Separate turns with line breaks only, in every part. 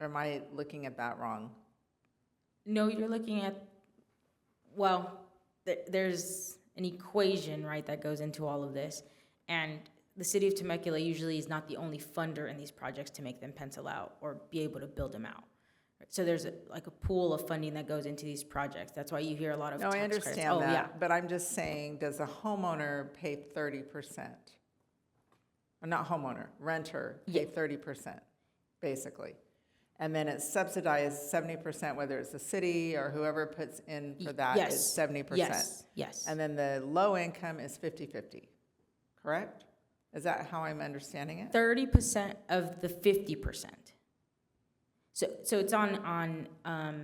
Or am I looking at that wrong?
No, you're looking at, well, th- there's an equation, right, that goes into all of this. And the city of Temecula usually is not the only funder in these projects to make them pencil out or be able to build them out. So there's a- like a pool of funding that goes into these projects. That's why you hear a lot of
No,
tax
I
credits.
understand
Oh, yeah.
that, but I'm just saying, does a homeowner pay thirty percent? Not homeowner, renter pay thirty percent, basically. And then it's subsidized seventy percent, whether it's the city or whoever puts in for that
Yes.
is seventy percent.
Yes, yes.
And then the low income is 50-50, correct? Is that how I'm understanding it?
thirty percent of the fifty percent. So, so it's on, on, um,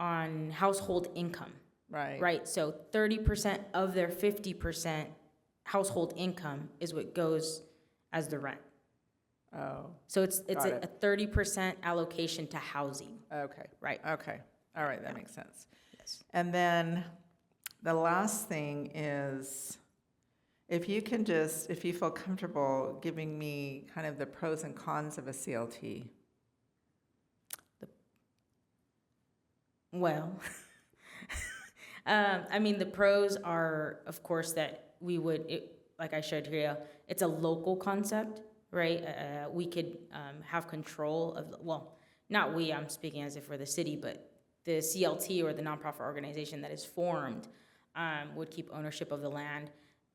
on household income.
Right.
Right, so thirty percent of their fifty percent household income is what goes as the rent.
Oh,
So it's, it's
Got
a
it.
thirty percent allocation to housing,
okay,
right?
okay. All right, that makes sense.
Yes.
And then the last thing is, if you can just, if you feel comfortable giving me kind of the pros and cons of a CLT.
Well, um, I mean, the pros are, of course, that we would, it, like I showed here, it's a local concept, right? Uh, we could um, have control of, well, not we, I'm speaking as if we're the city, but the CLT or the nonprofit organization that is formed um, would keep ownership of the land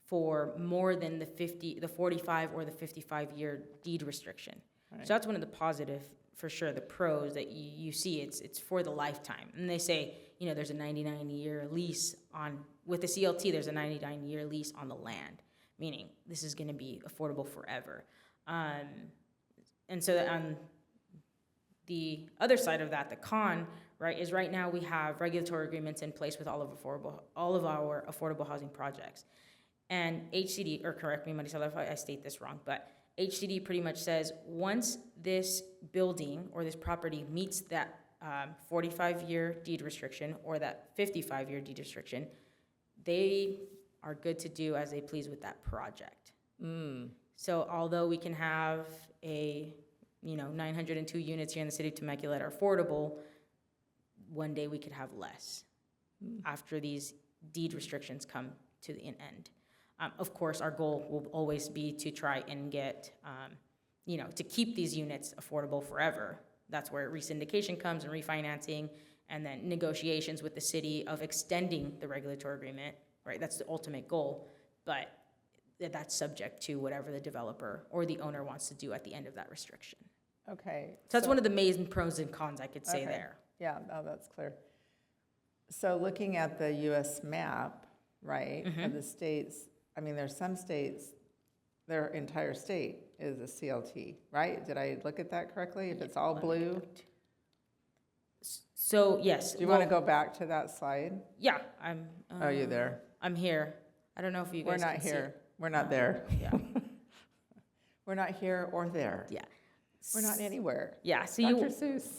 for more than the 50, the 45 or the 55 year deed restriction. So that's one of the positive, for sure, the pros that you, you see. It's it's for the lifetime, and they say you know there's a 99 year lease on with the CLT. There's a 99 year lease on the land, meaning this is going to be affordable forever. Um, and so on the other side of that, the con, right, is right now we have regulatory agreements in place with all of affordable, all of our affordable housing projects. And HCD, or correct me, Marisela, if I I state this wrong, but HCD pretty much says, once this building or this property meets that forty-five year deed restriction or that fifty-five year deed restriction, they are good to do as they please with that project. So although we can have a, you know, nine hundred and two units here in the city of Temecula that are affordable, one day we could have less after these deed restrictions come to an end. Um, of course, our goal will always be to try and get, um, you know, to keep these units affordable forever. That's where resyndication comes and refinancing, and then negotiations with the city of extending the regulatory agreement, right? That's the ultimate goal, but that that's subject to whatever the developer or the owner wants to do at the end of that restriction.
Okay.
So that's one of the main pros and cons I could say
Okay.
there.
Yeah, no, that's clear. So looking at the US map, right,
Mm-hmm.
of the states, I mean, there's some states, their entire state is a CLT, right? Did I look at that correctly? If it's all blue?
So yes,
Do you want to
well,
go back to that slide?
Yeah, I'm.
Oh, you
um,
there?
I'm here. I don't know if you
We're
guys.
not
can see
here.
it. Um,
We're not there.
Yeah,
We're not here or there.
yeah,
We're not anywhere.
yeah. So
Dr.
you,
Seuss.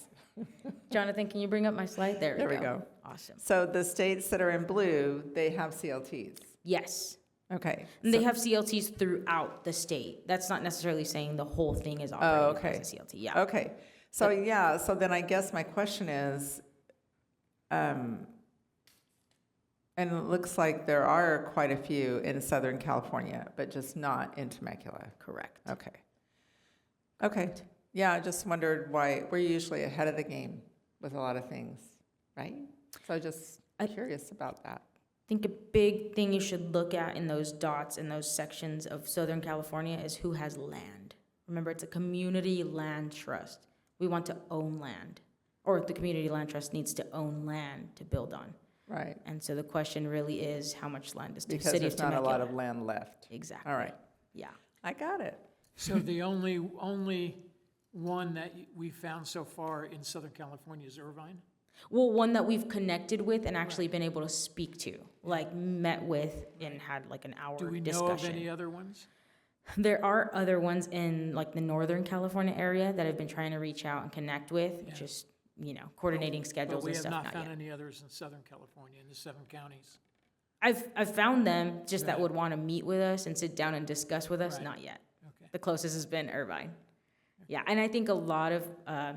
Jonathan, can you bring up my slide? There,
There we
we
go.
Awesome.
So the states that are in blue, they have CLTs.
Yes,
Okay.
and they have CLTs throughout the state. That's not necessarily saying the whole thing is
Oh,
operating
okay.
as a CLT. Yeah.
Okay, so yeah, so then I guess my question is, um, and it looks like there are quite a few in Southern California, but just not in Temecula.
Correct.
Okay. Okay, yeah, I just wondered why, we're usually ahead of the game with a lot of things, right? So just
I-
curious about that.
think a big thing you should look at in those dots in those sections of Southern California is who has land. Remember, it's a community land trust. We want to own land, or the community land trust needs to own land to build on.
Right,
And so the question really is, how much land does the
because
city of
there's not a
Temecula?
lot of land left.
Exactly.
All right,
Yeah.
I got it.
So the only, only one that we found so far in Southern California is Irvine?
Well, one that we've connected with and actually been able to speak to, like met with and had like an hour
Do we know of
discussion.
any other ones?
There are other ones in like the Northern California area that I've been trying to reach out and connect with, just, you know, coordinating
But
schedules
we
and
have
stuff,
not
not
found
yet.
any others in Southern California, in the seven counties.
I've, I've found them, just that would want to meet with us and sit down and discuss with us,
Right.
not yet.
Okay.
The closest has been Irvine. Yeah, and I think a lot of, uh,